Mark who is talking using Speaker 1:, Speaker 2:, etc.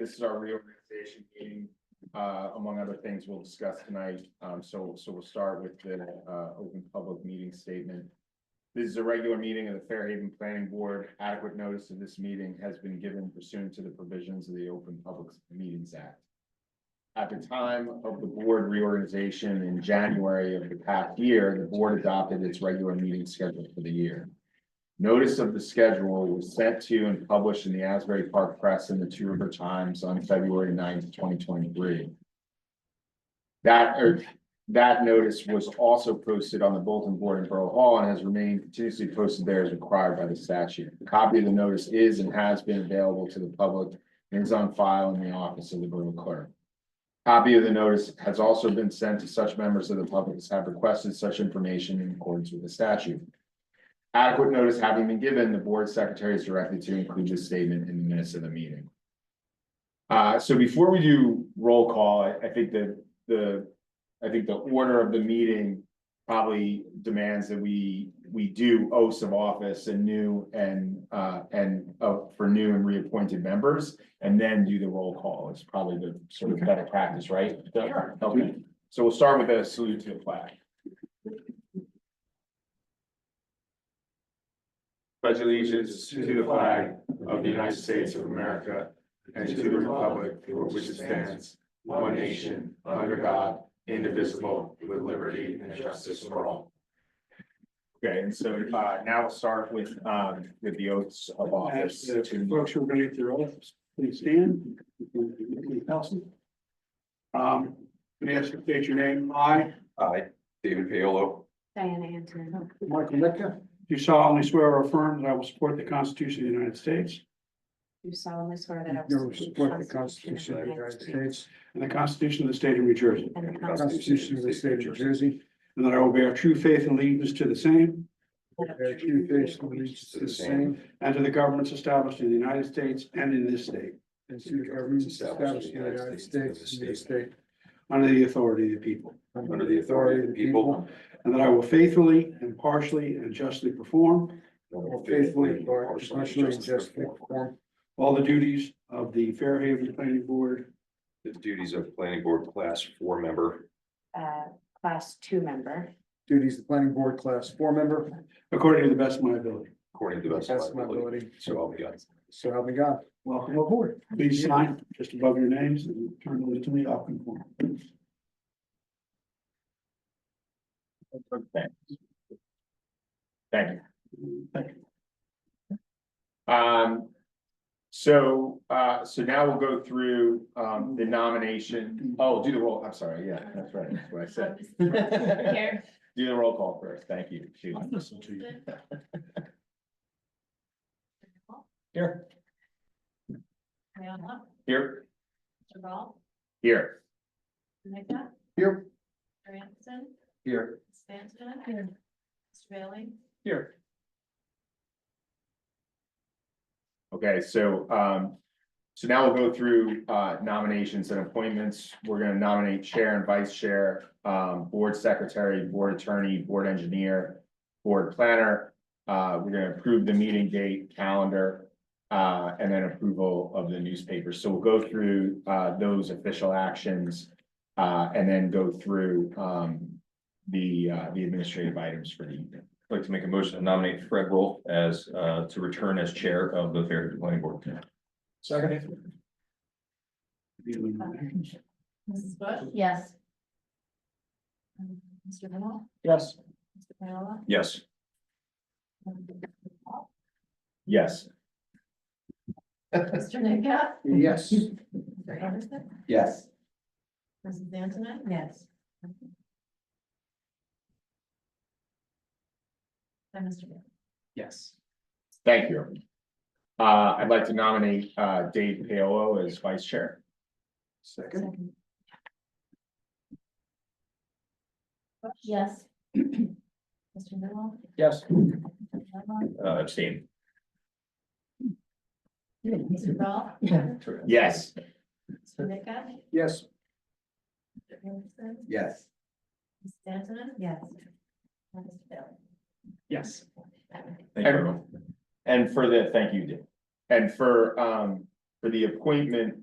Speaker 1: this is our reorganization meeting. Uh, among other things we'll discuss tonight. Um, so, so we'll start with the, uh, open public meeting statement. This is a regular meeting of the Fairhaven Planning Board. Adequate notice of this meeting has been given pursuant to the provisions of the Open Public Meetings Act. At the time of the board reorganization in January of the past year, the board adopted its regular meeting schedule for the year. Notice of the schedule was sent to and published in the Asbury Park Press and the Two River Times on February 9th, twenty twenty-three. That, or that notice was also posted on the bulletin board in Borough Hall and has remained continuously posted there as required by the statute. A copy of the notice is and has been available to the public and is on file in the office of the Borough Clerk. Copy of the notice has also been sent to such members of the public as have requested such information in accordance with the statute. Adequate notice having been given, the board secretary is directed to include this statement in the minutes of the meeting. Uh, so before we do roll call, I, I think that the, I think the order of the meeting probably demands that we, we do oaths of office and new and, uh, and, uh, for new and reappointed members, and then do the roll call. It's probably the sort of better practice, right? Sure. Okay, so we'll start with a salute to the flag.
Speaker 2: pledge allegiance to the flag of the United States of America and to the republic for which it stands, one nation, under God, indivisible, with liberty and justice for all.
Speaker 1: Okay, and so uh now we'll start with um with the oaths of office.
Speaker 3: As uh, folks who are going to get their oaths, please stand. Um, can I ask you to state your name? I,
Speaker 4: I, David Paolo,
Speaker 5: Diana Anton.
Speaker 3: Michael Litka, do solemnly swear or affirm that I will support the Constitution of the United States
Speaker 5: Do solemnly swear that I
Speaker 6: You
Speaker 5: will
Speaker 6: will support the Constitution of the United States
Speaker 3: and the Constitution of the State of New Jersey,
Speaker 5: And the
Speaker 6: the Constitution of the State of New Jersey,
Speaker 3: and that I will bear true faith and allegiance to the same uh,
Speaker 6: bear true faith and allegiance to the same,
Speaker 3: and to the governments established in the United States and in this state,
Speaker 6: and to the governments established in the United States and this state,
Speaker 3: under the authority of the people,
Speaker 4: under the authority of the people,
Speaker 3: and that I will faithfully, impartially, and justly perform
Speaker 6: and will faithfully, impartially, and justly perform
Speaker 3: all the duties of the Fairhaven Planning Board
Speaker 4: the duties of planning board class four member,
Speaker 5: Uh, class two member,
Speaker 6: duties of planning board class four member,
Speaker 3: according to the best of my ability.
Speaker 4: according to the best of
Speaker 6: best of my
Speaker 4: my ability.
Speaker 6: ability,
Speaker 4: So I'll be on.
Speaker 6: so help me God.
Speaker 3: Welcome aboard. Please sign just above your names and turn it to me. I'll conform.
Speaker 1: Okay. Thank you.
Speaker 3: Thank you.
Speaker 1: Um, so, uh, so now we'll go through, um, the nomination. Oh, do the roll, I'm sorry, yeah, that's right, that's what I said.
Speaker 5: Here.
Speaker 1: Do the roll call first, thank you. Shoot. Here,
Speaker 5: Ayala,
Speaker 1: here,
Speaker 5: Duval,
Speaker 1: here.
Speaker 5: Mika,
Speaker 1: Here.
Speaker 5: Anderson,
Speaker 1: Here.
Speaker 5: Stanton. Mr. Bailey.
Speaker 1: Here. Okay, so, um, so now we'll go through, uh, nominations and appointments. We're gonna nominate chair and vice chair, um, board secretary, board attorney, board engineer, board planner. Uh, we're gonna approve the meeting date, calendar, uh, and then approval of the newspaper. So we'll go through, uh, those official actions. Uh, and then go through, um, the, uh, the administrative items for the evening.
Speaker 7: I'd like to make a motion to nominate Fred Roll as, uh, to return as chair of the Fairhaven Planning Board.
Speaker 6: Second.
Speaker 5: Mrs. Bush. Yes. Mr. Duval,
Speaker 6: Yes.
Speaker 5: Mr. Ayala.
Speaker 7: Yes,
Speaker 1: Yes.
Speaker 5: Mr. Nika,
Speaker 6: Yes.
Speaker 5: Mr. Anderson,
Speaker 1: Yes.
Speaker 5: Mrs. Antoinette. Yes. And Mr. Bailey.
Speaker 6: Yes.
Speaker 1: Thank you. Uh, I'd like to nominate, uh, Dave Paolo as vice chair.
Speaker 6: Second.
Speaker 5: Yes. Mr. Noel?
Speaker 6: Yes.
Speaker 7: uh, abstain.
Speaker 5: Mr. Ball?
Speaker 1: Yes.
Speaker 5: Mr. Nika?
Speaker 6: Yes.
Speaker 5: Anderson?
Speaker 6: Yes.
Speaker 5: Ms. Antonin? Yes. And Mr. Bailey?
Speaker 6: Yes.
Speaker 7: Thank you, everyone.
Speaker 1: And for the, thank you, Dave. And for, um, for the appointment